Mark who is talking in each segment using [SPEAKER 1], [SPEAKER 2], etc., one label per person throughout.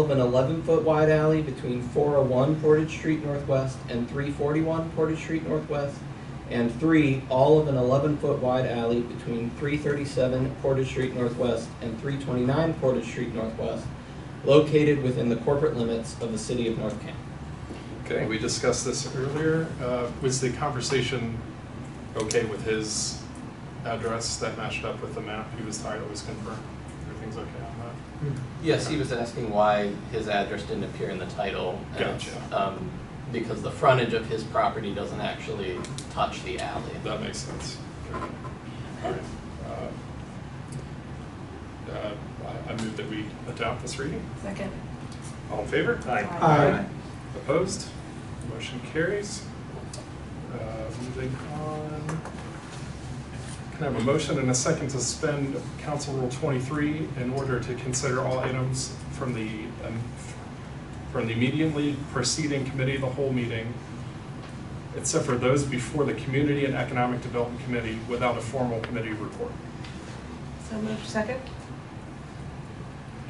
[SPEAKER 1] of an 11-foot wide alley between 401 Portage Street Northwest and 341 Portage Street Northwest, and three, all of an 11-foot wide alley between 337 Portage Street Northwest and 329 Portage Street Northwest, located within the corporate limits of the city of North Canton.
[SPEAKER 2] Okay, we discussed this earlier. Uh, Was the conversation okay with his address that matched up with the map he was tired was confirmed? Everything's okay on
[SPEAKER 3] Yes, he was asking why his address didn't appear in the title. and it's,
[SPEAKER 2] Gotcha.
[SPEAKER 3] Um, because the frontage of his property doesn't actually touch the alley.
[SPEAKER 2] that? That makes sense. Okay. All right. Uh, uh, I- I move that we adopt this reading.
[SPEAKER 4] Second.
[SPEAKER 2] All in favor?
[SPEAKER 4] Aye.
[SPEAKER 1] Aye.
[SPEAKER 2] Opposed? Motion carries. Uh, Moving on. Can I have a motion and a second to suspend Council Rule 23 in order to consider all items from the, um, from the immediately preceding committee of the whole meeting, except for those before the Community and Economic Development Committee without a formal committee report?
[SPEAKER 4] So moved. Second?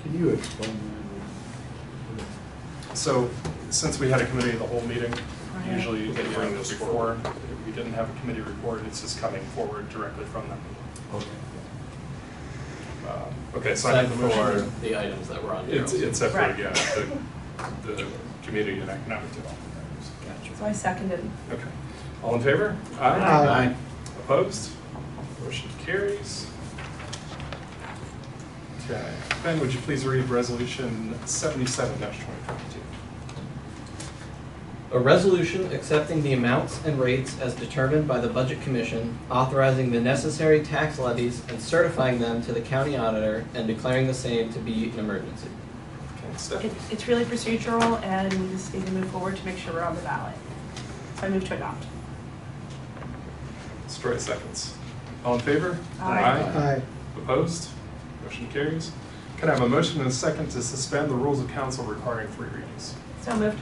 [SPEAKER 5] Can you explain that?
[SPEAKER 2] So, since we had a committee of the whole meeting,
[SPEAKER 4] Right.
[SPEAKER 2] usually they bring this forward. If We didn't have a committee report, it's just coming forward directly from them.
[SPEAKER 5] Okay.
[SPEAKER 2] Uh, Okay, so I need the motion.
[SPEAKER 3] Except for the items that were on your.
[SPEAKER 2] It's, it's up for,
[SPEAKER 4] Right.
[SPEAKER 2] yeah, the, the community and economic development.
[SPEAKER 4] So I seconded.
[SPEAKER 2] Okay, all in favor?
[SPEAKER 5] Aye.
[SPEAKER 2] Opposed? Motion carries. Okay, Ben, would you please read resolution seventy-seven twenty twenty-two?
[SPEAKER 1] A resolution accepting the amounts and rates as determined by the Budget Commission, authorizing the necessary tax levies and certifying them to the county auditor and declaring the same to be an emergency.
[SPEAKER 2] Okay,
[SPEAKER 4] It,
[SPEAKER 2] Stephanie?
[SPEAKER 4] it's really procedural and we just need to move forward to make sure we're on the ballot. So I move to adopt.
[SPEAKER 2] Story seconds. All in favor?
[SPEAKER 4] Aye.
[SPEAKER 2] Opposed? Motion carries. Can I have a motion and a second to suspend the rules of council requiring three readings?
[SPEAKER 4] So moved.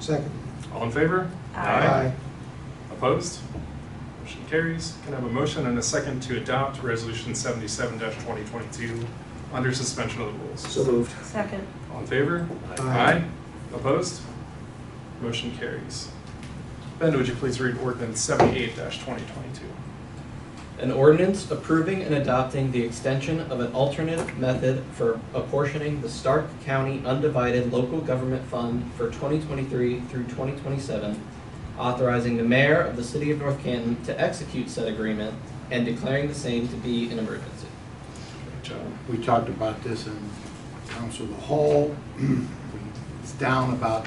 [SPEAKER 5] Second.
[SPEAKER 2] All in favor?
[SPEAKER 4] Aye.
[SPEAKER 2] Opposed? Motion carries. Can I have a motion and a second to adopt Resolution seventy-seven twenty twenty-two under suspension of the rules?
[SPEAKER 5] So moved.
[SPEAKER 4] Second.
[SPEAKER 2] All in favor?
[SPEAKER 5] Aye.
[SPEAKER 2] Opposed? Motion carries. Ben, would you please read ordinance seventy-eight twenty twenty-two?
[SPEAKER 1] An ordinance approving and adopting the extension of an alternative method for apportioning the Stark County Undivided Local Government Fund for 2023 through 2027, authorizing the mayor of the city of North Canton to execute said agreement and declaring the same to be an emergency.
[SPEAKER 2] John?
[SPEAKER 5] We talked about this in council of the whole. It's down about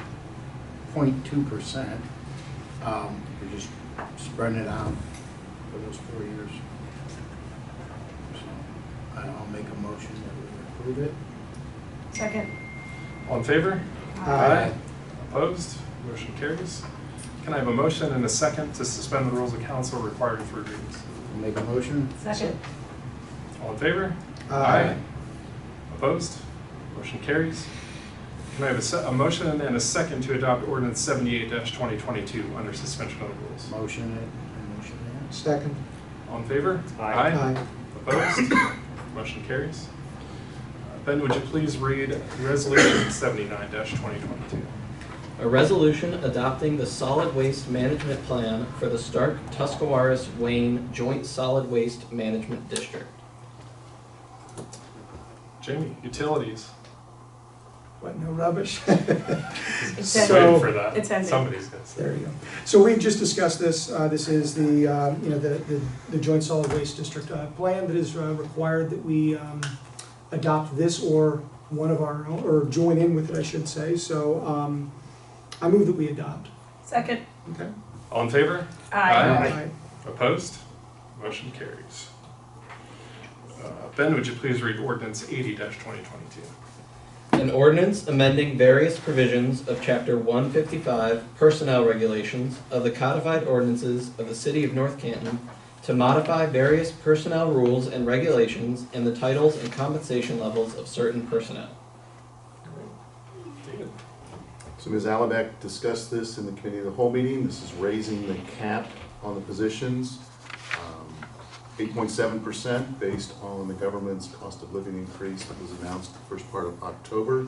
[SPEAKER 5] 0.2 percent. Um, We're just spreading it out for those four years. So I- I'll make a motion that we approve it.
[SPEAKER 4] Second.
[SPEAKER 2] All in favor?
[SPEAKER 5] Aye.
[SPEAKER 2] Opposed? Motion carries. Can I have a motion and a second to suspend the rules of council requiring three readings?
[SPEAKER 5] I'll Make a motion.
[SPEAKER 4] Second.
[SPEAKER 2] All in favor?
[SPEAKER 5] Aye.
[SPEAKER 2] Opposed? Motion carries. Can I have a se- a motion and a second to adopt ordinance seventy-eight twenty twenty-two under suspension of the rules?
[SPEAKER 5] Motion it, and motion that. Second.
[SPEAKER 2] All in favor? Opposed? Motion carries. Uh, Ben, would you please read resolution seventy-nine twenty twenty-two?
[SPEAKER 1] A resolution adopting the solid waste management plan for the Stark Tuscarawas Wayne Joint Solid Waste Management District.
[SPEAKER 2] Jamie, utilities.
[SPEAKER 6] What, no rubbish?
[SPEAKER 4] It's
[SPEAKER 2] Just
[SPEAKER 4] ended.
[SPEAKER 2] waiting
[SPEAKER 6] So-
[SPEAKER 2] for that.
[SPEAKER 4] It's ended.
[SPEAKER 2] Somebody's gonna say.
[SPEAKER 6] There you go. So we've just discussed this, uh, this is the, uh, you know, the, the- the joint solid waste district uh, plan that is uh, required that we um, adopt this or one of our, own or join in with it, I should say, so um, I move that we adopt.
[SPEAKER 4] Second.
[SPEAKER 2] Okay. All in favor?
[SPEAKER 4] Aye.
[SPEAKER 2] Aye. Opposed? Motion carries. Uh, Ben, would you please read ordinance eighty twenty twenty-two?
[SPEAKER 1] An ordinance amending various provisions of Chapter 155 Personnel Regulations of the Codified Ordinances of the City of North Canton to modify various personnel rules and regulations and the titles and compensation levels of certain personnel.
[SPEAKER 2] David?
[SPEAKER 7] So Ms. Alabac discussed this in the committee of the whole meeting. This is raising the cap on the positions, um, eight point seven percent based on the government's cost of living increase that was announced the first part of October.